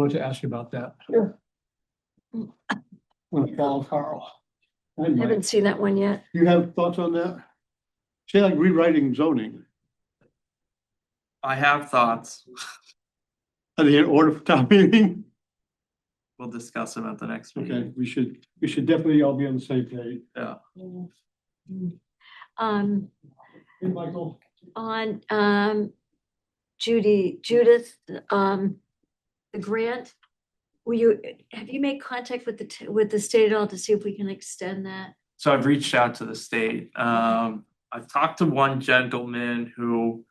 wanted to ask you about that. Sure. Want to follow Carl. I I might. haven't seen that one yet. You have thoughts on that? Say like rewriting zoning, I have thoughts. are they in order for town meeting? We'll discuss them at the next Okay, meeting. we should, we should definitely all be on the same page. Um, Hey, Michael. on, um, Judy, Judith, um, the grant. Will you, have you made contact with the, t- with the state at all to see if we can extend that? So I've reached out to the state. Um, I've talked to one gentleman who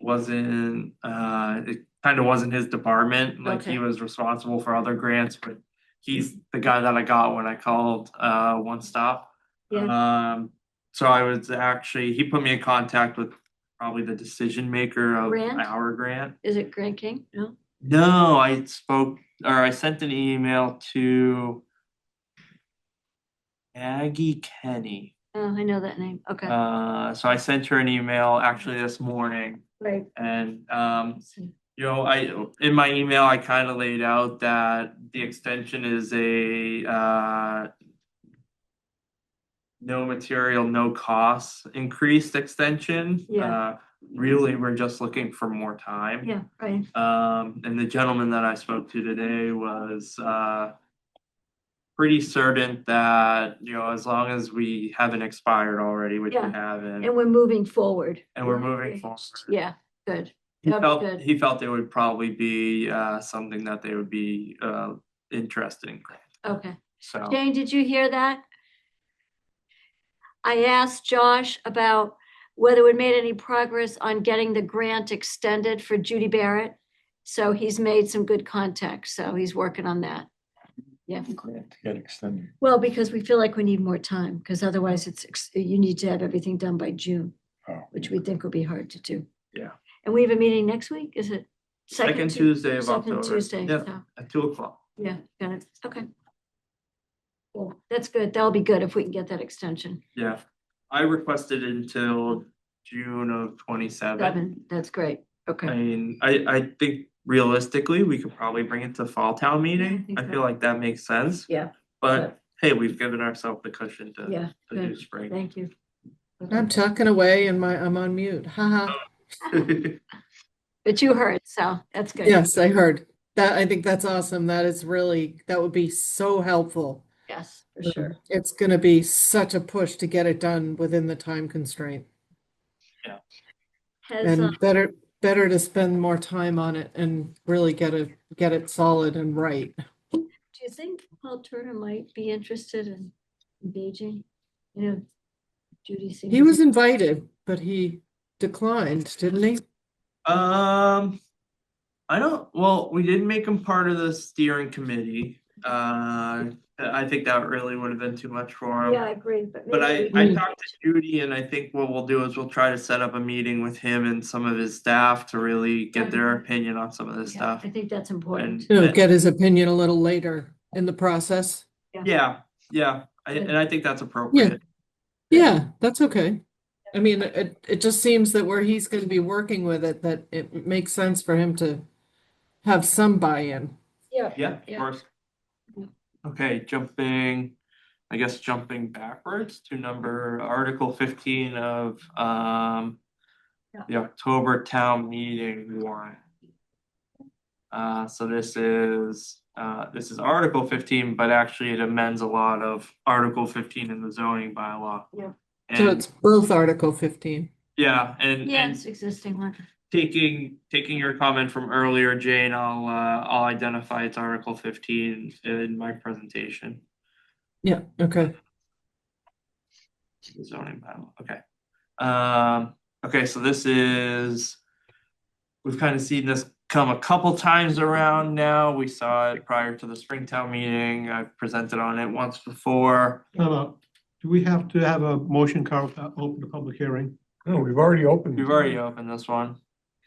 wasn't, uh, it kind of wasn't his department. Like Okay. he was responsible for other grants, but he's the guy that I got when I called, uh, One Stop. Yeah, Um, so I was actually, he put me in contact with probably the decision maker of Grant? our grant. is it Grant King? No? No, I spoke or I sent an email to Aggie Kenny. Oh, I know that name. Okay, Uh, so I sent her an email actually this morning right. and um, you know, I in my email I kind of laid out that the extension is a uh no material, no cost increased extension. Yeah. Uh, really, we're just looking for more time. Yeah, right. Um, and the gentleman that I spoke to today was, uh, pretty certain that, you know, as long as we haven't expired already, which we Yeah, haven't, And we're moving forward. and we're moving forward. Yeah, good. He that'd be good. felt, he felt it would probably be, uh, something that they would be, uh, interested in. Okay. So, Jane, did you hear that? I asked Josh about whether we made any progress on getting the grant extended for Judy Barrett. So he's made some good contacts, so he's working on that. Yeah, grant to get extended. well, because we feel like we need more time, because otherwise it's, ex- you need to have everything done by June, Oh. which we think will be hard to do. Yeah. And we have a meeting next week, is it? second Tu- Tuesday of Second October. Tuesday, Yeah, so. at two o'clock. Yeah, got it. Okay. Cool. That's good. That'll be good if we can get that extension. Yeah. I requested until June of twenty-seven. Seven, that's great. I Okay. mean, I, I think realistically, we could probably bring it to fall town meeting. think I so. feel like that makes sense. Yeah, But hey, we've given ourselves the cushion to, yeah, to do good. spring. Thank you. Mm. I'm talking away and my, I'm on mute. Haha. Oh, But you heard, so that's good. Yes, I heard. That, I think that's awesome. That is really, that would be so helpful. Yes, for sure. It's gonna be such a push to get it done within the time constraint. Has, uh, And better, better to spend more time on it and really get it, get it solid and right. do you think Paul Turner might be interested in engaging? You know, Judy seems. He was invited, but he declined, didn't he? Um, I don't, well, we did make him part of the steering committee. Uh, I think that really would have been too much for Yeah, I him. agree, but. But I, maybe we- I talked to Judy and I think what we'll do is we'll try to set up a meeting with him and some of his staff to really get their opinion on some of this Yeah, stuff. I think that's And, important. To get his opinion a little later in the process. yeah, yeah, I- Good. and I think that's appropriate. Yeah, that's okay. I mean, it, it just seems that where he's gonna be working with it, that it makes sense for him to have some buy-in. Yeah. Yeah, of Yeah. course. Yeah. Okay, jumping, I guess jumping backwards to number Article fifteen of um. Yeah. The October town meeting warrant. Uh, so this is, uh, this is Article fifteen, but actually it amends a lot of Article fifteen in the zoning bylaw. Yeah. So And, it's both Article fifteen. yeah, and Yeah, and it's existing one. taking taking your comment from earlier, Jane, I'll uh, I'll identify it's Article fifteen in my presentation. Yeah, okay. Zoning bylaw. Okay. Um, okay, so this is we've kind of seen this come a couple times around now. We saw it prior to the Springtown meeting. I've presented on it once before. Time out. Do we have to have a motion, Carl, to open the public hearing? No, we've already opened. We've already opened this one.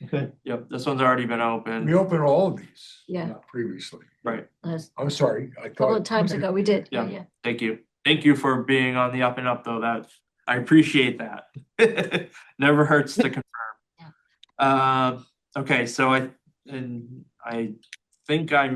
Okay, Yep, this one's already been We opened. opened all of these. uh, Yeah. Previously. Right. Last I'm sorry, I thought. couple of times ago, we did. Yeah. Thank you. Thank you for being on the up and up though. That I appreciate that. Never hurts to confirm. Um, okay, so I, and I think I